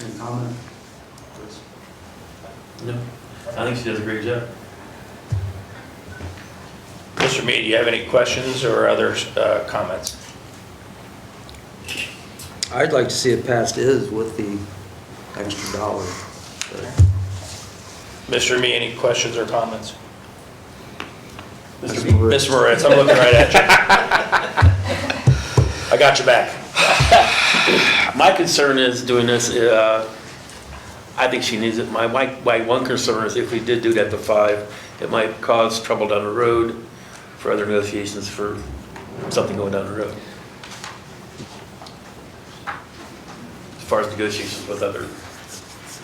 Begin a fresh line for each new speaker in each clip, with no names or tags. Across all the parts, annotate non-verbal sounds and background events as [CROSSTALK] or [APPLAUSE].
Any comment? Chris?
No, I think she does a great job.
Mr. Mead, do you have any questions or other uh, comments?
I'd like to see it passed is with the extra dollar.
Mr. Mead, any questions or comments?
Mr.
Ms. Moritz, I'm looking right at you. I got your back.
My concern is doing this, uh, I think she needs it. My, my, my one concern is if we did do that to five, it might cause trouble down the road for other negotiations for something going down the road. As far as negotiations with other,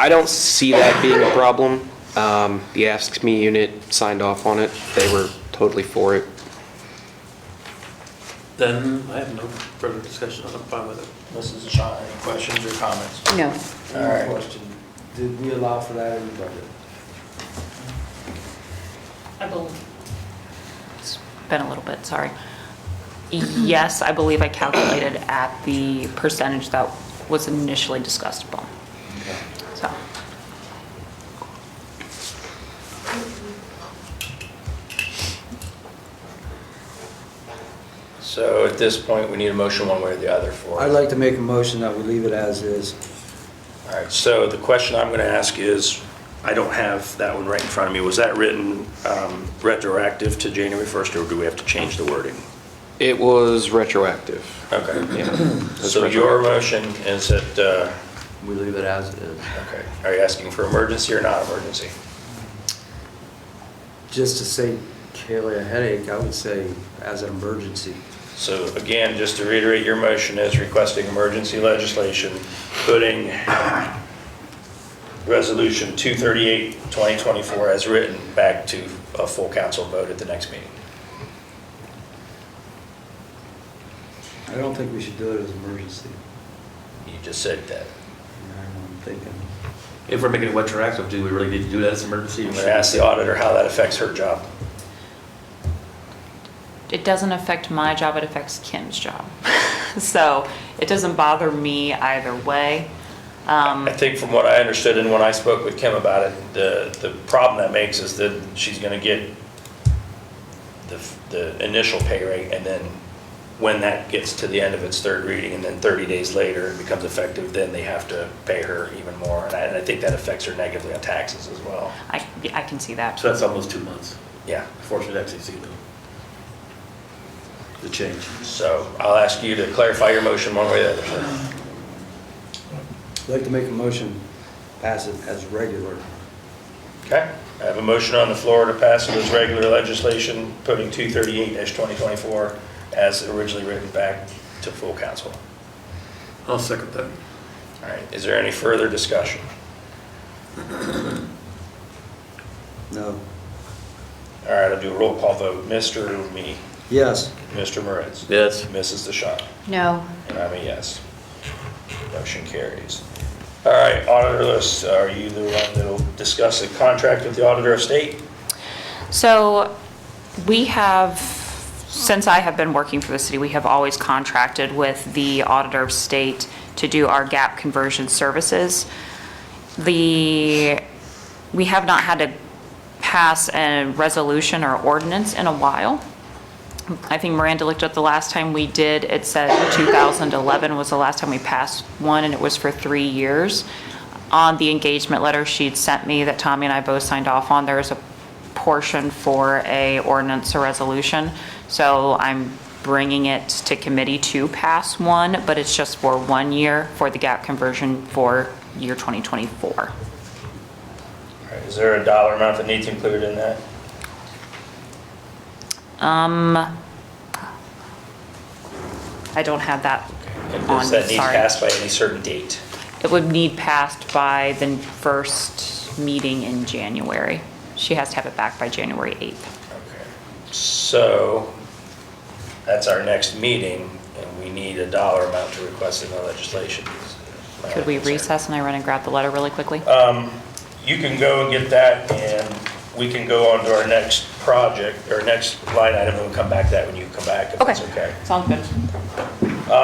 I don't see that being a problem. Um, The Ask Me unit signed off on it. They were totally for it.
then I have no further discussion. I'm fine with it.
Mrs. Shaw, any questions or comments?
No.
All right.
Question, did we allow for that in the budget?
I believe. It's been a little bit, sorry. Yes, I believe I calculated at the percentage that was initially discussed upon. So,
So at this point, we need a motion one way or the other for.
I'd like to make a motion that we leave it as is.
All right, so the question I'm going to ask is, I don't have that one right in front of me. Was that written um, retroactive to January 1st, or do we have to change the wording?
It was retroactive.
Okay.
Yeah. That's
So your motion is that, uh,
We leave it as is.
okay, are you asking for emergency or not emergency?
Just to save Kaylee a headache, I would say as an emergency.
So again, just to reiterate, your motion is requesting emergency legislation, putting Resolution 238, 2024 as written back to a full council vote at the next meeting.
I don't think we should do it as emergency.
You just said that.
Yeah, I'm thinking.
If we're making it retroactive, do we really need to do that as an emergency?
I'm going to ask the auditor how that affects her job.
it doesn't affect my job, it affects Kim's job. [LAUGHS] So, it doesn't bother me either way. Um,
I think from what I understood and when I spoke with Kim about it, the, the problem that makes is that she's gonna get the, the initial pay rate and then when that gets to the end of its third reading and then 30 days later it becomes effective, then they have to pay her even more. And I, and I think that affects her negatively on taxes as well.
I, I can see that.
So that's almost two months
Yeah.
before she'd actually see the, the change.
So I'll ask you to clarify your motion one way or the other, sir.
I'd like to make a motion, pass it as regular.
Okay? I have a motion on the floor to pass it as regular legislation, putting 238-2024 as originally written back to full council.
I'll second that.
All right, is there any further discussion?
No.
All right, I'll do a roll call vote. Mr. Me,
Yes.
Mr. Moritz,
Yes.
Mrs. DeShawn,
No,
and I'm a yes. Motion carries. All right, auditor list, are you the one that'll discuss the contract with the auditor of state?
So we have, since I have been working for the city, we have always contracted with the auditor of state to do our gap conversion services. The, we have not had to pass a resolution or ordinance in a while. I think Miranda looked up the last time we did, it said 2011 was the last time we passed one, and it was for three years. On the engagement letter she'd sent me that Tommy and I both signed off on, there is a portion for a ordinance or resolution. So I'm bringing it to committee to pass one, but it's just for one year for the gap conversion for year 2024.
All right, Is there a dollar amount that needs included in that?
I don't have that
And
on,
Does that need
sorry.
passed by any certain date?
It would need passed by the first meeting in January. She has to have it back by January 8th.
Okay. So, that's our next meeting, and we need a dollar amount to request in the legislation.
Could we recess and I run and grab the letter really quickly?
You can go and get that, and we can go on to our next project, or next line item, and we'll come back to that when you come back, if that's okay.
Sounds good.